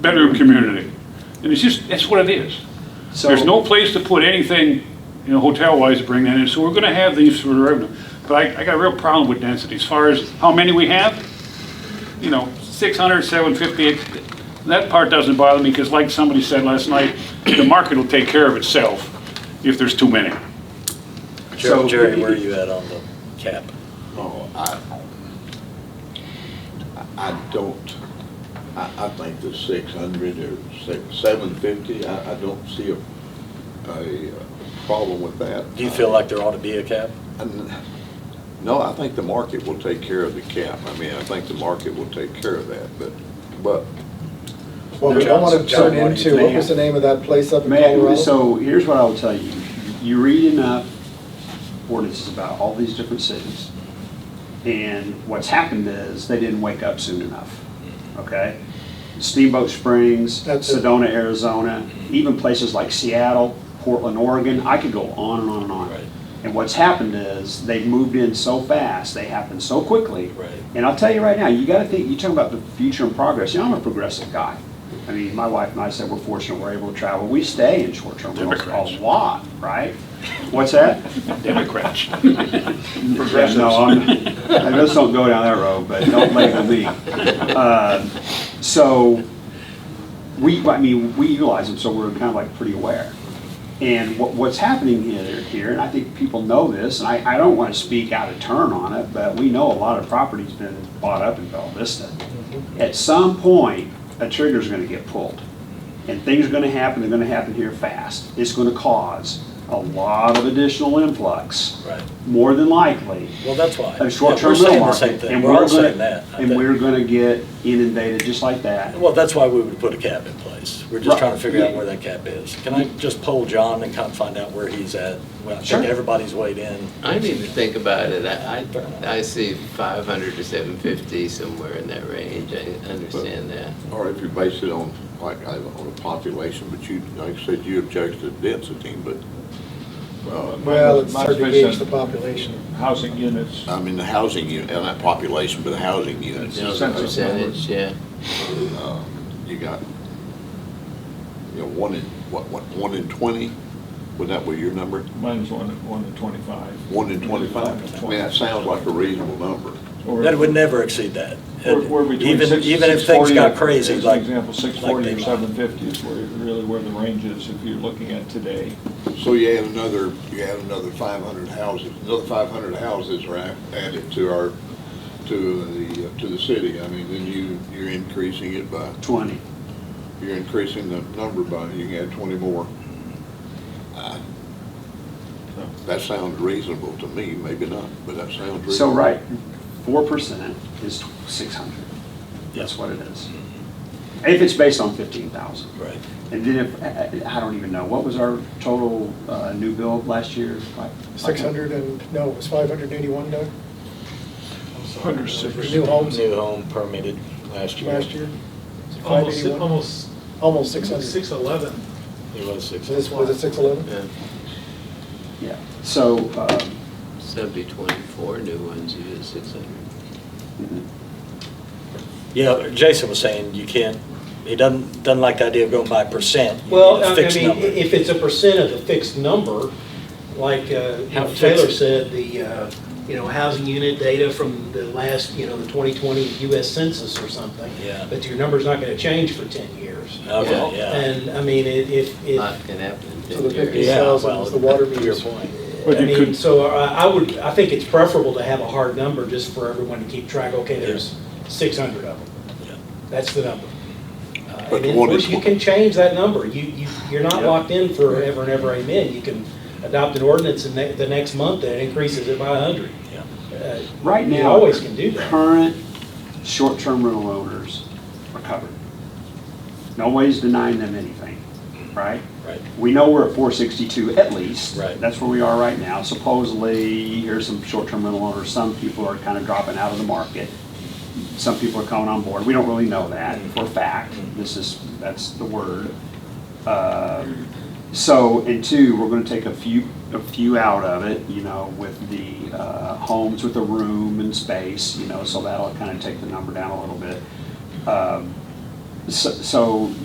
bedroom community. And it's just, that's what it is. So- There's no place to put anything, you know, hotel-wise to bring that in, so we're gonna have these for the revenue. But I, I got a real problem with density, as far as how many we have, you know, 600, 750, it- that part doesn't bother me, because like somebody said last night, the market will take care of itself if there's too many. So- Jerry, Jerry, where are you at on the cap? Oh, I, I don't, I, I think the six hundred or six, seven fifty, I, I don't see a, a uh, problem with that. Uh, Do you feel like there ought to be a cap? And- No, I think the market will take care of the cap. I mean, I think the market will take care of that, but, but Well, we don't want to John, turn what do you into, what was the name of that place up in Man, Colorado? so here's what I'll tell you. You read enough ordinances about all these different cities, and what's happened is they didn't wake up soon enough, okay? Steamboat Springs, That's it. Sedona, Arizona, even places like Seattle, Portland, Oregon, I could go on and on and on. Right. And what's happened is they've moved in so fast, they happen so quickly. Right. And I'll tell you right now, you gotta think, you talk about the future and progress, you know, I'm a progressive guy. I mean, my wife and I said we're fortunate we're able to travel, we stay in short-term rentals Democrats. a lot, right? What's that? Democrats. Yeah, No, I'm, I just don't go down that road, but don't label me. Uh, So, we, I mean, we utilize them, so we're kind of like pretty aware. And what, what's happening here, here, and I think people know this, and I, I don't want to speak out of turn on it, but we know a lot of property's been bought up in Bella Vista. At some point, a trigger's gonna get pulled, and things are gonna happen, they're gonna happen here fast. It's gonna cause a lot of additional influx. Right. More than likely, Well, that's why. a short-term Yeah, we're rental saying market. the same thing. and We're all gonna- saying that, I And think. we're gonna get inundated just like that. Well, that's why we would put a cap in place. We're just Right. trying to figure out where that cap is. Can I just poll John and kind of find out where he's at? Well, I Sure. think everybody's weighed in. I need to think about it. I, I I see 500 to 750, somewhere in that range. I understand that. Or if you base it on, like, I- on a population, but you, like I said, you object to density, but, uh, Well, it's My hard to suspicion- gauge the population. housing units. I mean, the housing unit, and that population, but the housing units. You know, the census Percentage, yeah. Um, You got, you know, one in, what, what, one in twenty? Would that be your number? Mine's one, one to twenty-five. One in twenty-five? I mean, that sounds like a reasonable number. Or- That would never exceed that. or- or between Even- six- Even if things 640 got crazy, as an like. Example, like six forty they or might. seven fifty is where, really where the range is if you're looking at today. So you add another, you add another five hundred houses, another five hundred houses are a- added to our, to the, to the city. I mean, then you, you're increasing it by Twenty. you're increasing the number by, you can add twenty more. Uh, That sounds reasonable to me, maybe not, but that sounds reasonable. So, right, four percent is six hundred. That's what it is. If it's based on fifteen thousand. Right. And then if, I- I I don't even know, what was our total uh, new build last year? Like- 600 and, no, it was 581, Doug? Hundred six. New homes New home permitted last year. last year? Almost, 581? almost Almost 600. six eleven. It was six. So this was it 611? yeah. Yeah, so, um, So it'd be 24 new ones, you did 600. Yeah, Jason was saying you can't, he doesn't, doesn't like the idea of going by percent. You Well, need a I I fixed mean, number. if it's a percent of the fixed number, like uh, you How know, Taylor fixed? said, the, uh, you know, housing unit data from the last, you know, the 2020 US Census or something. Yeah. But your number's not going to change for 10 years. Okay, yeah. And, I mean, it- if, Lot if, can happen in So the 10 years. Yeah, 50,000 well, was the water to meter. your point. But I you mean, could- so uh, I I would, I think it's preferable to have a hard number just for everyone to keep track, okay, Yeah. there's 600 of them. Yeah. That's the number. Uh, But And then, of one course, is you one. can change that number. You, you, you're not Yeah. locked in forever and ever, amen. You can adopt an ordinance and ne- the next month that increases it by a hundred. Uh, Yeah. right now. You always can do that. Current short-term rental owners are covered. Nobody's denying them anything, right? Right. We know we're at four sixty-two at least. Right. That's where we are right now. Supposedly, here's some short-term rental owners, some people are kind of dropping out of the market. Some people are coming on board. We don't really know that for a fact. This is, that's the word. Uh, So, and two, we're gonna take a few, a few out of it, you know, with the uh, homes with a room and space, you know, so that'll kind of take the number down a little bit. Um, So- so